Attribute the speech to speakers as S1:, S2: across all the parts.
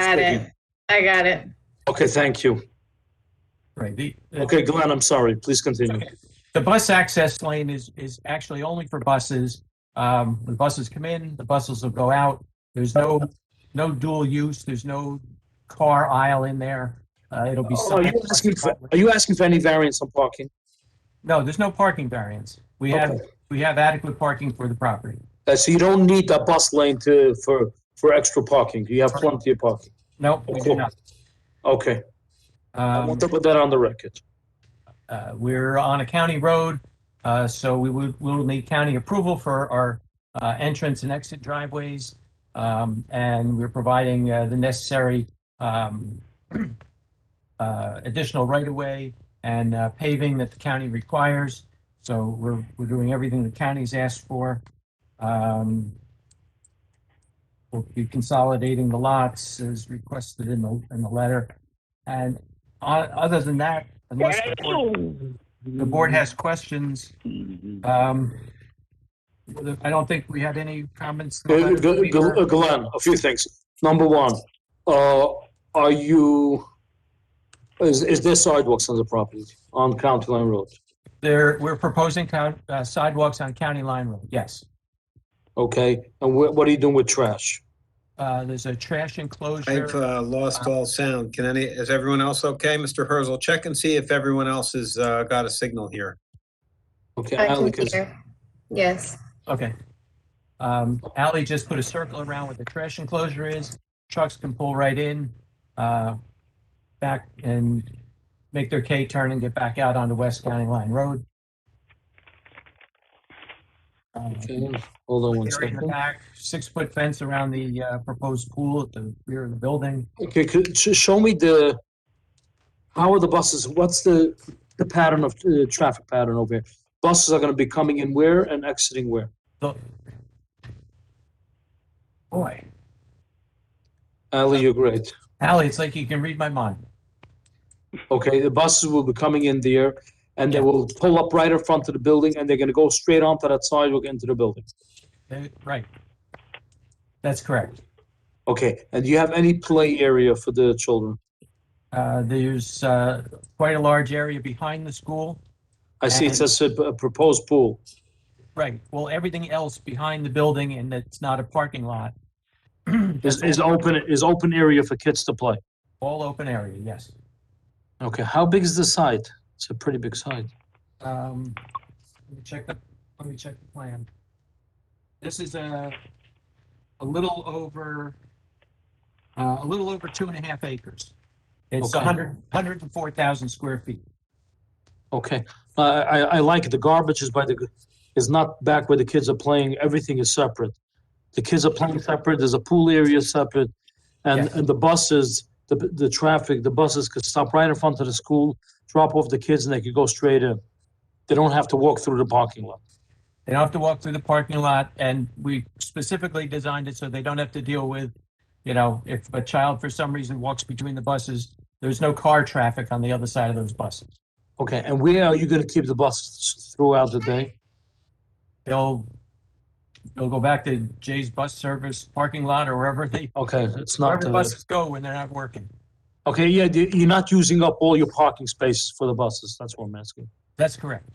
S1: got
S2: speaking.
S1: it. I got it.
S2: Okay, thank you.
S3: Right, the, the,
S2: Okay, Glenn, I'm sorry. Please continue.
S3: the bus access lane is, is actually only for buses. Um, the buses come in, the buses will go out. There's no, no dual use, there's no car aisle in there. Uh, it'll be.
S2: Are you Oh, asking for, are you asking for any variance on parking?
S3: No, there's no parking variance. We have, we have adequate parking for the property.
S2: Uh, So you don't need a bus lane to, for, for extra parking? You have plenty of parking?
S3: No, we do not.
S2: Okay, I
S3: Um,
S2: want to put that on the record.
S3: Uh, We're on a county road, uh, so we would, we'll need county approval for our uh, entrance and exit driveways. Um, And we're providing uh, the necessary um, uh, additional right-of-way and uh, paving that the county requires. So we're, we're doing everything the county's asked for. Um, We'll be consolidating the lots as requested in the, in the letter. And o- other than that, unless the board the board has questions. Um, I don't think we had any comments.
S2: Uh, Gl- Gl- uh,
S3: We're-
S2: Glenn, a few things. Number one, uh, are you, is, is there sidewalks on the property on County Line Road?
S3: There, we're proposing coun- uh, sidewalks on County Line Road, yes.
S2: Okay, and what, what are you doing with trash?
S3: Uh, There's a trash
S4: I've
S3: enclosure.
S4: uh, lost all sound. Can any, is everyone else okay? Mr. Herzl, check and see if everyone else has uh, got a signal here.
S2: Okay,
S1: I
S2: Alec
S1: can
S2: is,
S1: hear. Yes.
S3: Okay. Um, Ally just put a circle around where the trash enclosure is. Trucks can pull right in, uh, back and make their K-turn and get back out onto West County Line Road. Uh,
S2: okay, hold on one
S3: Area in the
S2: second.
S3: back, six-foot fence around the uh, proposed pool at the rear of the building.
S2: Okay, could, sh- show me the, how are the buses, what's the, the pattern of, uh, traffic pattern over here? Buses are gonna be coming in where and exiting where?
S3: The- Boy,
S2: Ali, you're great.
S3: Ally, it's like you can read my mind.
S2: Okay, the buses will be coming in there and they will pull up right in front of the building and they're gonna go straight onto that sidewalk into the building.
S3: Uh, Right. That's correct.
S2: Okay, and do you have any play area for the children?
S3: Uh, There's uh, quite a large area behind the school.
S2: I see it
S3: And-
S2: says a a proposed pool.
S3: Right, well, everything else behind the building and it's not a parking lot.
S2: Is, is open, is open area for kids to play.
S3: All open area, yes.
S2: Okay, how big is the site? It's a pretty big site.
S3: Um, let me check the, let me check the plan. This is a, a little over, uh, a little over two and a half acres. It's a
S2: Okay.
S3: hundred, hundred and four thousand square feet.
S2: Okay, I, I, I like it. The garbage is by the, is not back where the kids are playing. Everything is separate. The kids are playing separate. There's a pool area separate. And,
S3: Yes.
S2: and the buses, the, the traffic, the buses could stop right in front of the school, drop off the kids and they could go straight in. They don't have to walk through the parking lot.
S3: They don't have to walk through the parking lot and we specifically designed it so they don't have to deal with, you know, if a child for some reason walks between the buses, there's no car traffic on the other side of those buses.
S2: Okay, and where are you gonna keep the buses throughout the day?
S3: They'll, they'll go back to Jay's Bus Service parking lot or wherever they
S2: Okay, it's
S3: Wherever
S2: not,
S3: the
S2: uh,
S3: buses go when they're not working.
S2: okay, yeah, the- you're not using up all your parking spaces for the buses. That's what I'm asking.
S3: That's correct.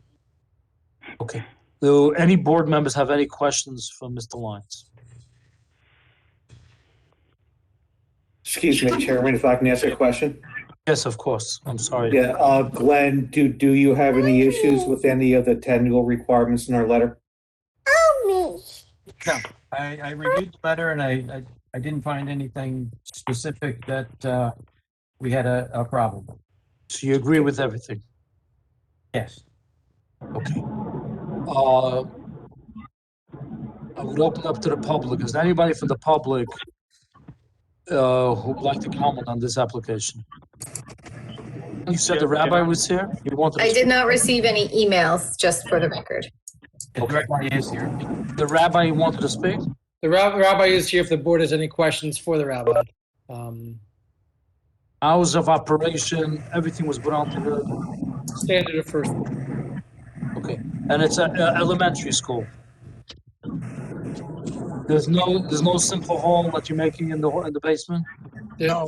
S2: Okay. Do any board members have any questions for Mr. Lyons?
S5: Excuse me, Chairman, if I can ask a question?
S2: Yes, of course. I'm sorry.
S5: Yeah, uh, Glenn, do, do you have any issues with any of the technical requirements in our letter?
S3: I, I reviewed the letter and I, I, I didn't find anything specific that, uh, we had a, a problem. with.
S2: So you agree with everything?
S3: Yes.
S2: Okay. Uh, I would open up to the public. Is there anybody from the public uh, who would like to comment on this application? You said the rabbi was here? You wanted
S1: I
S2: to
S1: did not receive any emails, just for the record.
S3: The director is here.
S2: speak? The rabbi wanted to speak?
S6: The rab- rabbi is here if the board has any questions for the rabbi. Um,
S2: Hours of operation, everything was put on to the,
S6: Standard of first,
S2: okay. And it's a a elementary school. There's no, there's no simple hall that you're making in the, in the basement?
S6: no,